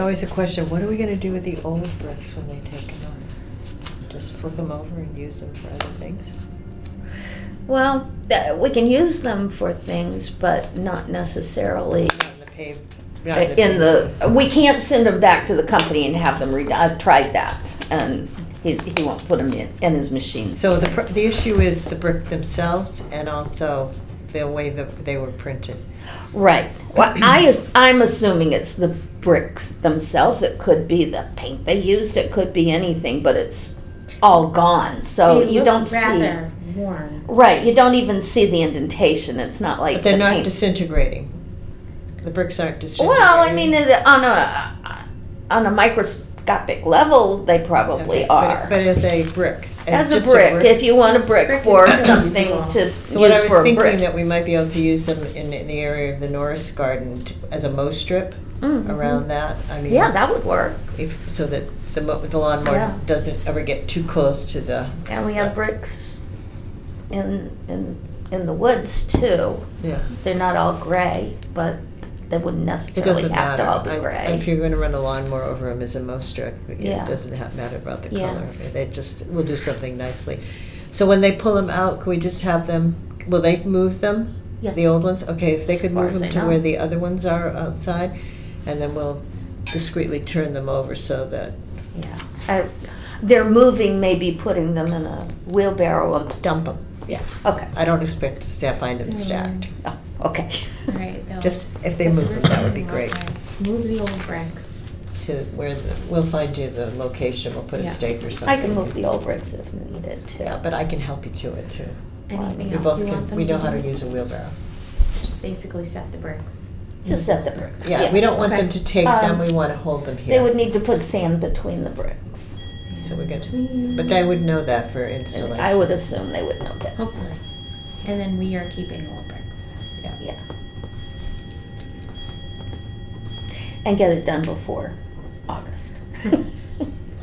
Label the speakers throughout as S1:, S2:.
S1: always a question, what are we gonna do with the old bricks when they take them off? Just flip them over and use them for other things?
S2: Well, th- we can use them for things, but not necessarily
S1: Not in the paved. not
S2: in the,
S1: paved-
S2: we can't send them back to the company and have them redone. I've tried that and he, he won't put them in, in his machine.
S1: So the, pr- the issue is the brick themselves and also the way that they were printed.
S2: Right. Well, I is, I'm assuming it's the bricks themselves. It could be the paint they used. It could be anything, but it's all gone. So
S3: They
S2: you
S3: look
S2: don't see.
S3: rather worn.
S2: Right. You don't even see the indentation. It's not like
S1: But they're
S2: the
S1: not
S2: paint-
S1: disintegrating. The bricks aren't disintegrating.
S2: Well, I mean, it- on a on a microscopic level, they probably
S1: Okay, but-
S2: are.
S1: But as a brick.
S2: as a
S1: just
S2: brick, if you want a
S3: It's
S2: brick,
S3: brick
S2: for
S3: is
S2: something
S3: something
S2: to
S1: So what
S2: use
S1: I
S2: for
S1: was
S2: a
S1: thinking
S2: brick.
S1: that we might be able to use them in, in the area of the Norris Garden t- as a mow strip
S2: Mhm.
S1: around that. I mean,
S2: Yeah, that would work.
S1: if, so that the, mo- the lawnmower
S2: Yeah.
S1: doesn't ever get too close to the.
S2: And we have bricks in in in the woods too.
S1: Yeah,
S2: They're not all gray, but they wouldn't
S1: it
S2: necessarily
S1: doesn't
S2: have
S1: matter.
S2: to all be
S1: I-
S2: gray.
S1: If you're going to run a lawnmower over them as a mow strip,
S2: Yeah.
S1: it doesn't ha matter about the
S2: Yeah.
S1: color. They just we'll do something nicely. So when they pull them out, can we just have them? Will they move them?
S2: Yeah.
S1: The old ones? Okay, if they
S2: As
S1: could
S2: far
S1: move
S2: as
S1: them
S2: I
S1: to
S2: know.
S1: where the other ones are outside, and then we'll discreetly turn them over so that
S2: yeah. I, they're moving, maybe putting them in a wheelbarrow. Of,
S1: dump them. Yeah,
S2: okay.
S1: I don't expect to say I find them stacked.
S2: Oh, okay.
S3: All right, they'll-
S1: Just if they move them, that would be great.
S3: Move the old bricks.
S1: To where the, we'll find you the location. We'll put a
S3: Yeah.
S1: stake or
S2: I
S1: something.
S2: can move the old bricks if needed too.
S1: Yeah, but I can help you to it too.
S3: Anything
S1: We
S3: else
S1: both
S3: you want
S1: can,
S3: them
S1: we
S3: to
S1: know how to
S3: do?
S1: use a wheelbarrow.
S3: Just basically set the bricks.
S2: Just set the bricks.
S1: Yeah, we don't want them
S3: Okay.
S1: to take them,
S2: Um,
S1: we want to hold them
S2: They
S1: here.
S2: would need to put sand between the bricks.
S1: So we're good.
S3: Between-
S1: But they would know that for
S2: And
S1: installation.
S2: I would assume they would know that.
S3: Hopefully. And then we are keeping old bricks.
S2: Yeah. And get it done before August.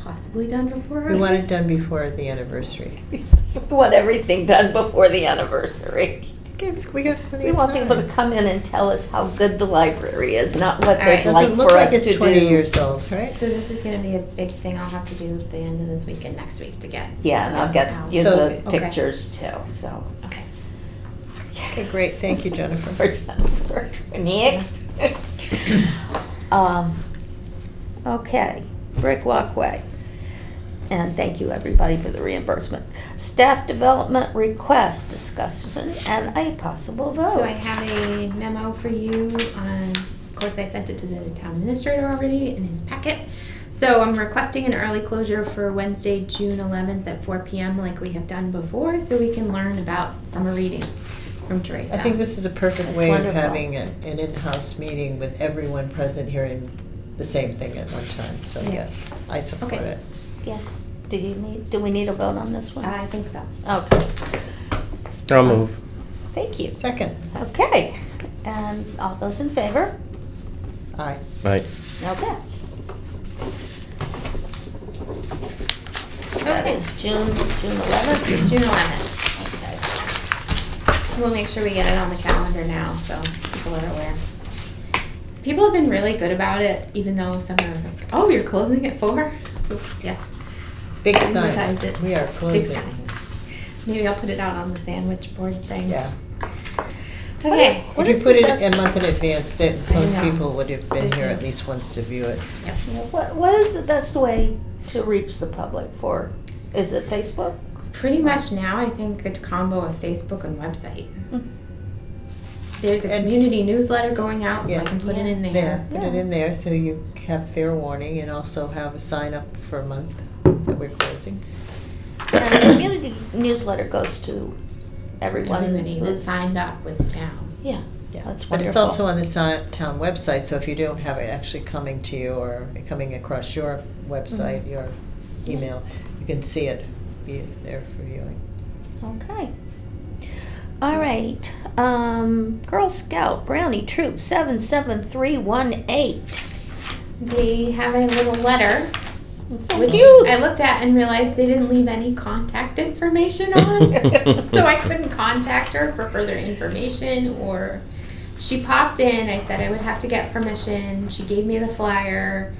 S3: Possibly done before.
S1: We want it done before the anniversary.
S2: We want everything done before the anniversary.
S1: It's, we got plenty
S2: We
S1: of
S2: want people to
S1: time.
S2: come in and tell us how good the library is, not what
S3: All
S2: they'd
S3: right.
S2: like
S1: Doesn't look
S2: for
S1: like
S2: us to
S1: it's twenty
S2: do.
S1: years old, right?
S3: So this is gonna be a big thing I'll have to do at the end of this week and next week to get.
S2: Yeah, and I'll get you
S1: So-
S2: the
S3: Okay.
S2: pictures too, so.
S3: Okay.
S1: Okay, great, thank you, Jennifer.
S2: for Jennifer. Next. Um, Okay, brick walkway. And thank you, everybody, for the reimbursement. Staff development request discussion and a possible
S3: So
S2: vote.
S3: I have a memo for you on, of course, I sent it to the town administrator already in his packet. So I'm requesting an early closure for Wednesday, June eleventh at four PM like we have done before, so we can learn about summer reading from Teresa.
S1: I think this is a perfect
S2: That's
S1: way of
S2: wonderful.
S1: having an, an in-house meeting with everyone present hearing the same thing at one time, so
S3: Yeah.
S1: yes, I support
S3: Okay.
S1: it.
S2: Yes, do you need, do we need a vote on this one?
S3: I think so.
S2: Okay,
S4: I'll move.
S2: thank you.
S1: Second,
S2: Okay, and all those in favor?
S1: aye.
S4: Right.
S2: Okay. That
S3: Okay.
S2: is June, June eleventh.
S3: June eleventh. We'll make sure we get it on the calendar now, so people are aware. People have been really good about it, even though some are like, oh, you're closing at four? Yeah.
S1: Big
S3: Advertised
S1: sign,
S3: it.
S1: we are
S3: Big
S1: closing.
S3: sign. Maybe I'll put it out on the sandwich board thing.
S1: Yeah.
S3: Okay.
S2: What
S1: If you
S2: is
S1: put
S2: the
S1: it
S2: best-
S1: a month in advance, then most
S3: know.
S1: people would have been here at
S3: Suitcase.
S1: least once to view it.
S2: Yeah, What, what is the best way to reach the public for? Is it Facebook?
S3: Pretty much now, I think a combo of Facebook and website.
S2: Mhm.
S3: There's a
S1: And-
S3: community newsletter going out, so
S1: Yeah.
S3: I can put it in
S1: There,
S3: there.
S1: put it
S2: Yeah.
S1: in there so you have fair warning and also have a sign up for a month that we're closing.
S2: And the community newsletter goes to everyone
S3: Everybody that
S2: who's-
S3: signed up with the town.
S2: Yeah,
S1: Yeah.
S2: That's
S1: But it's
S2: wonderful.
S1: also on the si- town website, so if you don't have it actually coming to you or coming across your website,
S2: Mm-hmm.
S1: your email, you can see it be there for viewing.
S2: okay. All right, um, Girl Scout Brownie Troop seven seven three one eight.
S3: They have a little letter,
S2: So
S3: which
S2: cute.
S3: I looked at and realized they didn't leave any contact information on. so I couldn't contact her for further information or she popped in. I said I would have to get permission. She gave me the flyer.